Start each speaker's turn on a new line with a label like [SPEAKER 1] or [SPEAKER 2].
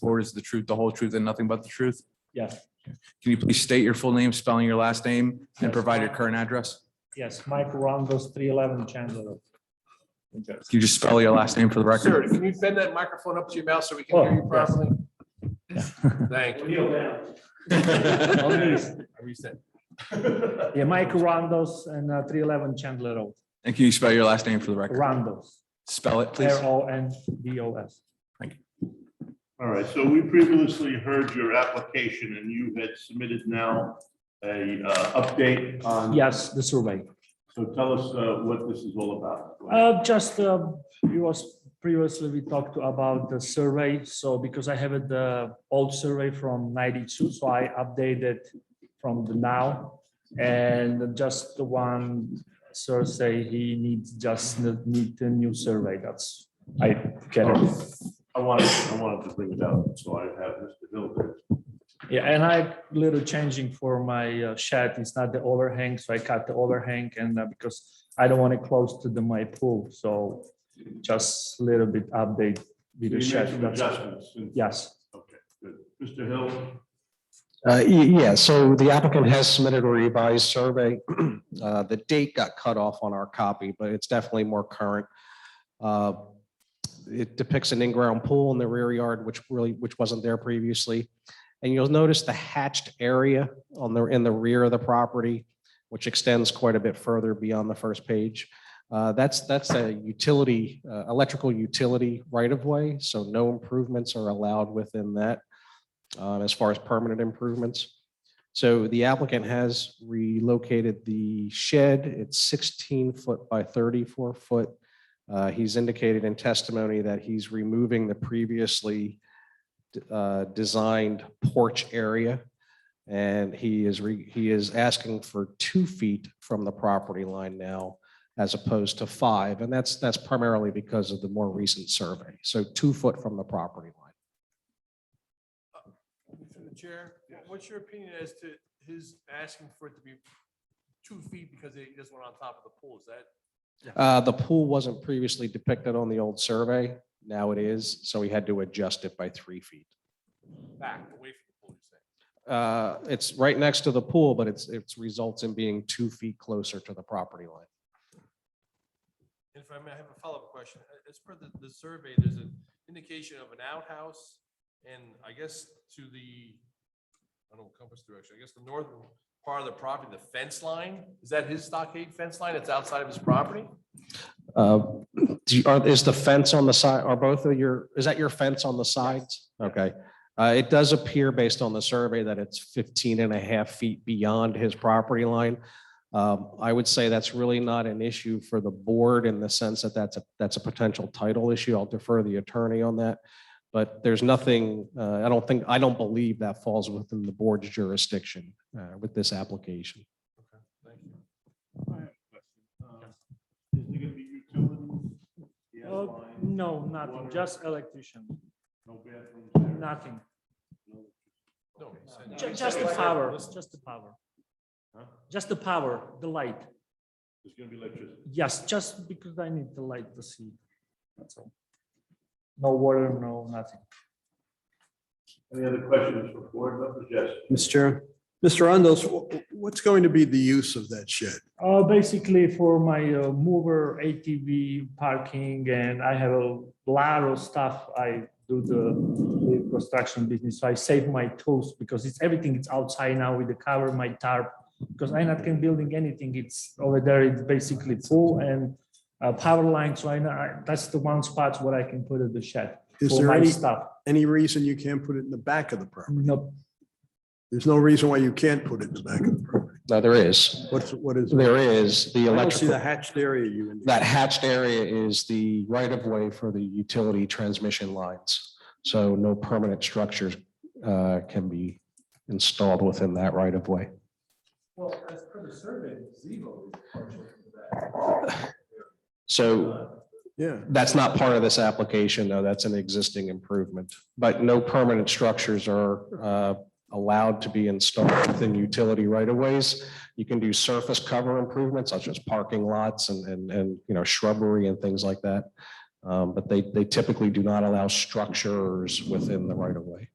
[SPEAKER 1] Lord is the truth, the whole truth, and nothing but the truth.
[SPEAKER 2] Yes,
[SPEAKER 1] Can you please state your full name, spelling your last name, and
[SPEAKER 2] Yes.
[SPEAKER 1] provide your current address?
[SPEAKER 2] yes, Mike Rondos, three eleven Chandler. Road, New Jersey.
[SPEAKER 1] Can you just spell your last name for the
[SPEAKER 3] Sir,
[SPEAKER 1] record?
[SPEAKER 3] can you bend that microphone up to your mouth so we can hear you
[SPEAKER 2] Oh, yes.
[SPEAKER 3] properly? Thank you. I reset.
[SPEAKER 2] Yeah, Mike Rondos and uh, three eleven Chandler Road,
[SPEAKER 1] And can you spell your last name for the record?
[SPEAKER 2] Rondos,
[SPEAKER 1] Spell it, please.
[SPEAKER 2] R O N D O S.
[SPEAKER 4] All right, so we previously heard your application and you had submitted now a uh, update on.
[SPEAKER 2] Yes, the survey.
[SPEAKER 4] So tell us uh, what this is all about.
[SPEAKER 2] Uh, just, uh, it was previously we talked about the survey, so because I have it, the old survey from ninety-two, so I updated from the now. And just the one sir say he needs, just need a new survey, that's, I get it.
[SPEAKER 4] I wanted, I wanted to bring it up, so I have Mr. Hilbert.
[SPEAKER 2] Yeah, and I little changing for my uh, shed. It's not the overhang, so I cut the overhang and uh, because I don't want it close to the my pool, so just little bit update with
[SPEAKER 4] You
[SPEAKER 2] the
[SPEAKER 4] made
[SPEAKER 2] shed.
[SPEAKER 4] some
[SPEAKER 2] that's-
[SPEAKER 4] adjustments. since-
[SPEAKER 2] Yes,
[SPEAKER 4] Okay, good. Mr. Hill,
[SPEAKER 5] Uh, y- Yeah, so the applicant has submitted a revised survey. Uh, The date got cut off on our copy, but it's definitely more current. Uh, It depicts an in-ground pool in the rear yard, which really, which wasn't there previously. And you'll notice the hatched area on the, in the rear of the property, which extends quite a bit further beyond the first page. Uh, That's, that's a utility, uh, electrical utility right-of-way, so no improvements are allowed within that um, as far as permanent improvements. So the applicant has relocated the shed. It's 16 foot by 34 foot. Uh, He's indicated in testimony that he's removing the previously uh, designed porch area. And he is, re- he is asking for two feet from the property line now as opposed to five. And that's, that's primarily because of the more recent survey. So two foot from the property line.
[SPEAKER 3] through the chair, what's your opinion as to his asking for it to be two feet because he doesn't want it on top of the pool? Is that?
[SPEAKER 5] Uh, the pool wasn't previously depicted on the old survey. Now it is, so we had to adjust it by three feet.
[SPEAKER 3] back away from the pool, you're saying.
[SPEAKER 5] Uh, it's right next to the pool, but it's, it's results in being two feet closer to the property line.
[SPEAKER 3] And If I may, I have a follow-up question. A- As per the, the survey, there's an indication of an outhouse and I guess to the, I don't know, compass direction, I guess the northern part of the property, the fence line, is that his stockade fence line? It's outside of his property?
[SPEAKER 5] Uh, do you- are- is the fence on the side, are both of your, is that your fence on the sides? Okay. Uh, it does appear based on the survey that it's 15 and a half feet beyond his property line. Um, I would say that's really not an issue for the board in the sense that that's a, that's a potential title issue. I'll defer the attorney on that. But there's nothing, uh, I don't think, I don't believe that falls within the board's jurisdiction, uh, with this application.
[SPEAKER 3] Thank you.
[SPEAKER 4] I have a question. Uh, Is there gonna be utilities? He has
[SPEAKER 2] Uh,
[SPEAKER 4] lines,
[SPEAKER 2] no, nothing, just electrician,
[SPEAKER 4] No bathrooms there?
[SPEAKER 2] nothing,
[SPEAKER 3] No, he said-
[SPEAKER 2] Ju-
[SPEAKER 3] he
[SPEAKER 2] just
[SPEAKER 3] said
[SPEAKER 2] the
[SPEAKER 3] it's there.
[SPEAKER 2] power,
[SPEAKER 3] Listen,
[SPEAKER 2] just the power.
[SPEAKER 4] Huh?
[SPEAKER 2] Just the power, the light,
[SPEAKER 4] There's gonna be electricity.
[SPEAKER 2] yes, just because I need the light to see, that's all. No water, no nothing.
[SPEAKER 4] Any other questions for board members? Yes.
[SPEAKER 6] Mr. Chair. Mr. Rondos, wh- what's going to be the use of that shed?
[SPEAKER 2] Uh, basically for my uh, mover, ATV parking, and I have a lot of stuff. I do the the construction business, so I save my tools because it's everything. It's outside now with the cover, my tarp, because I'm not can building anything. It's over there. It's basically full and uh, power line. So I know I, that's the one spot where I can put it the shed
[SPEAKER 6] Is
[SPEAKER 2] for
[SPEAKER 6] there
[SPEAKER 2] my
[SPEAKER 6] any,
[SPEAKER 2] stuff.
[SPEAKER 6] any reason you can't put it in the back of the property?
[SPEAKER 2] No,
[SPEAKER 6] There's no reason why you can't put it in the back of the property.
[SPEAKER 5] No, there is,
[SPEAKER 6] What's, what is? it?
[SPEAKER 5] there is the
[SPEAKER 6] I
[SPEAKER 5] electrical.
[SPEAKER 6] don't see the hatched area you. indicated.
[SPEAKER 5] That hatched area is the right of way for the utility transmission lines. So no permanent structures uh, can be installed within that right of way.
[SPEAKER 3] Well, as per the survey, gazebo is partial to that.
[SPEAKER 5] So
[SPEAKER 6] Yeah,
[SPEAKER 5] that's not part of this application, though. That's an existing improvement. But no permanent structures are uh, allowed to be installed within utility right of ways. You can do surface cover improvements such as parking lots and, and, and, you know, shrubbery and things like that. Um, But they, they typically do not allow structures within the right of way.